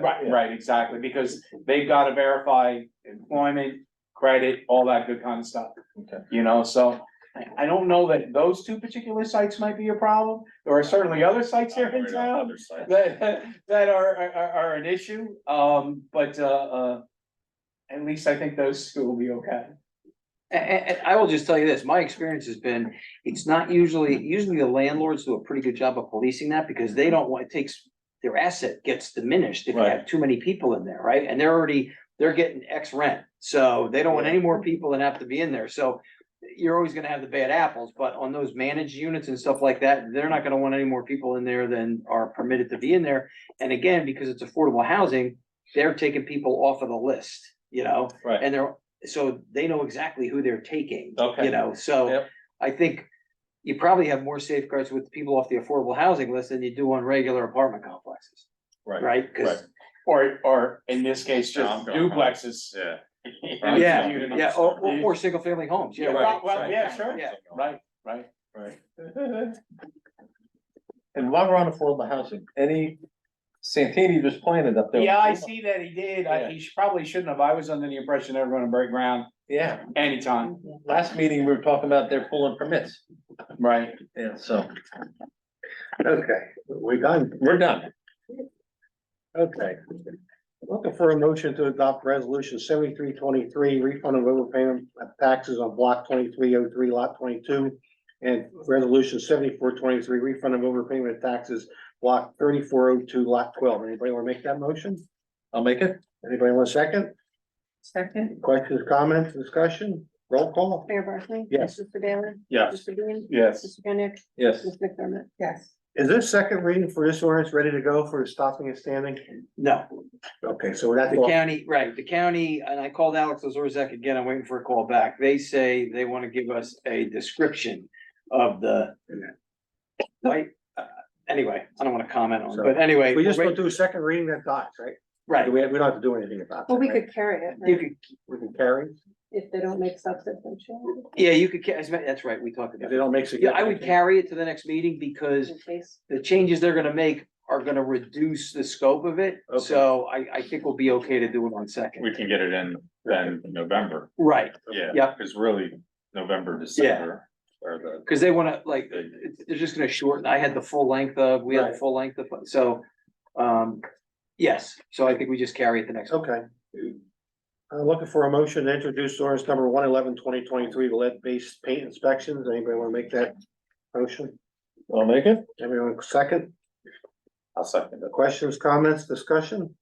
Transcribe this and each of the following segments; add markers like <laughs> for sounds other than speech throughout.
Right, right, exactly, because they've gotta verify employment, credit, all that good kind of stuff. Okay. You know, so I, I don't know that those two particular sites might be a problem. There are certainly other sites here in town Other side. <laughs> that, that are, are, are an issue, um, but, uh, uh, at least I think those two will be okay. A- a- and I will just tell you this, my experience has been, it's not usually, usually the landlords do a pretty good job of policing that because they don't want, it takes. Their asset gets diminished if you have too many people in there, right? And they're already, they're getting X rent, so they don't want any more people that have to be in there, so. You're always gonna have the bad apples, but on those managed units and stuff like that, they're not gonna want any more people in there than are permitted to be in there. And again, because it's affordable housing, they're taking people off of the list, you know? Right. And they're, so they know exactly who they're taking. Okay. You know, so Yep. I think you probably have more safeguards with people off the affordable housing list than you do on regular apartment complexes, Right, right? Cause, Or, or in this case, just Yeah, I'm going- duplexes. yeah. yeah, Communities. yeah, or, or, or single family homes, yeah, Yeah, right. well, well, yeah, sure. Yeah. Right, right. Right. <laughs> Well, And while we're on affordable housing, any, Santini just planted up there. Yeah, I see that he did. I, Yeah. he sh- probably shouldn't have. I was under the impression they were gonna break ground Yeah, anytime. last meeting, we were talking about their pulling permits, Right. yeah, so. Okay, we done. We're done. Okay. Looking for a motion to adopt resolution seventy-three twenty-three, refund of overpayment of taxes on block twenty-three oh three, lot twenty-two. And resolution seventy-four twenty-three, refund of overpayment of taxes, block thirty-four oh two, lot twelve. Anybody wanna make that motion? I'll make it. Anybody want a second? Second, Questions, comments, discussion? Roll call? Mayor Barkley? Yes. Mr. Baylor? Yes. Mr. Bean? Yes. Mr. Kenneth? Yes. Ms. McDermott? yes. Is this second reading for this ordinance ready to go for stopping and standing? No, Okay, so we're at the county, right, the county, and I called Alex Ozorzek again, I'm waiting for a call back. They say they wanna give us a description of the. Like, uh, anyway, I don't wanna comment on, it, but anyway. We just we're don't wait- do a second reading that dies, right? Right, We, we don't have to do anything about that. Well, we right? could carry it, you right, could We can carry, if they don't make substantive changes Yeah, you could, ca- as ma- that's right, we talked if about they it. don't make Yeah, significant. I would carry it to the next meeting because in case. the changes they're gonna make are gonna reduce the scope of it. Okay. So I, I think we'll be okay to do it on second. We can get it in then November, Right, yeah. Yep. Cause really, November, December, or the, because they wanna, like, it's- they're just gonna shorten, I had the full length of, we had the Right. full length of, so, um, yes, so I think we just carry it the next. Okay. I'm looking for a motion to introduce ordinance number one eleven twenty twenty-three, lead-based paint inspections. Anybody want to make that motion? I'll make it. Everyone second? I'll second it. Questions, comments, discussion?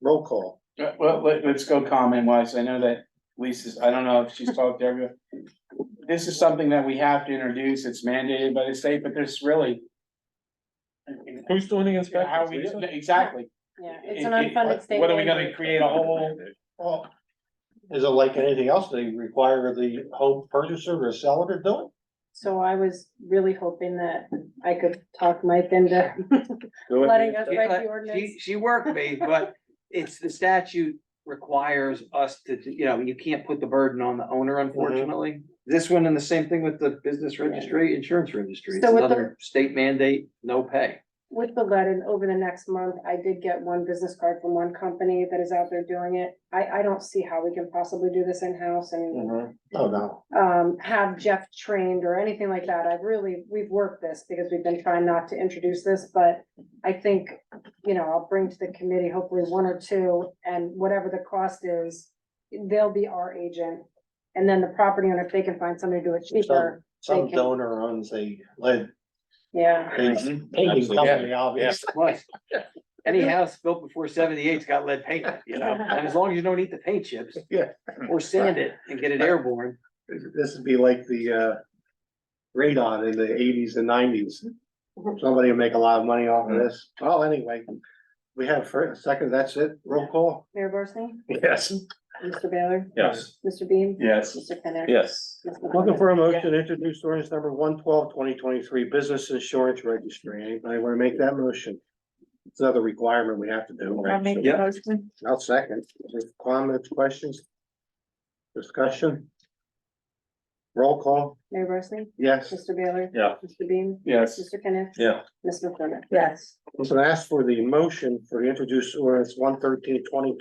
Roll call. Uh, Well, let, us go comment wise. I know that Lisa's, I don't know if she's talked to everyone. This is something that we have to introduce. It's mandated by the state, but there's really. Who's doing the How inspections? we, Lisa? exactly. Yeah, it's an It- it- unfunded state. What are we mandate. gonna create a whole? Well, is it like anything else? They require the home purchaser or seller to do it? So I was really hoping that I could talk <laughs> Mike into Do it. letting us Yeah, write uh, the she- ordinance. She worked me, but it's, the statute requires us to, do- you know, you can't put the burden on the owner Mm-hmm. unfortunately. This one and the same thing with the business registry, insurance registry, it's So with the- another state mandate, no pay. With the lead and over the next month, I did get one business card from one company that is out there doing it. I, I don't see how we can possibly do this in-house and Mhm. Oh, no. um, have Jeff trained or anything like that. I've really, we've worked this because we've been trying not to introduce this, but I think, you know, I'll bring to the committee hopefully one or two and whatever the cost is, they'll be our agent. And then the property owner, if they can find somebody to do it cheaper, Some They can- donor owns a lead yeah. painting company, obviously. <laughs> Plus, Any house built before seventy-eight's got lead paint, in it, you know, and as long as you don't eat the paint <laughs> chips. Yeah. Or sand it and get it airborne. This would be like the uh radon in the eighties and nineties. Somebody will make a lot of money off of this. Well, anyway, we have for a second, that's it. Roll call. Mayor Barsney? Yes. Mr. Baylor? Yes, Mr. Bean? Yes. Mr. Kenneth? Yes. Ms. McDermott? Looking for a motion to introduce ordinance number 112 2023 business insurance registry. Anybody want to make that motion? It's another requirement we have to do. I'll make Yeah. the motion. I'll second. Comments, questions? Discussion? Roll call, Mayor Barsney? yes. Mr. Baylor? Yeah. Mr. Bean? Yes. Mr. Kenneth? Yeah. Mr. McDermott? Yes. Listen, I asked for the motion for the introduced ordinance one thirteen twenty